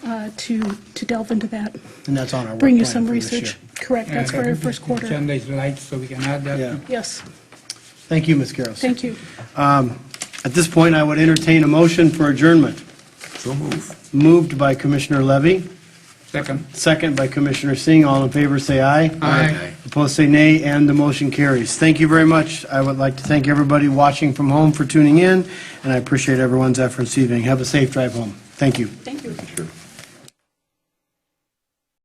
that, uh, to, to delve into that. And that's on our work Bring you plan some for this research. year. Correct, that's for our first quarter. Agenda is light, so we can add that. Yeah. Yes, Thank you, Ms. Garros. thank you. At this point, I would entertain a motion for adjournment. So move. Moved by Commissioner Levy, Second. second by Commissioner Singh. All in favor, say aye. Aye. Opposed, say nay, and the motion carries. Thank you very much. I would like to thank everybody watching from home for tuning in, and I appreciate everyone's efforts this evening. Have a safe drive home. Thank you. Thank you. Sure.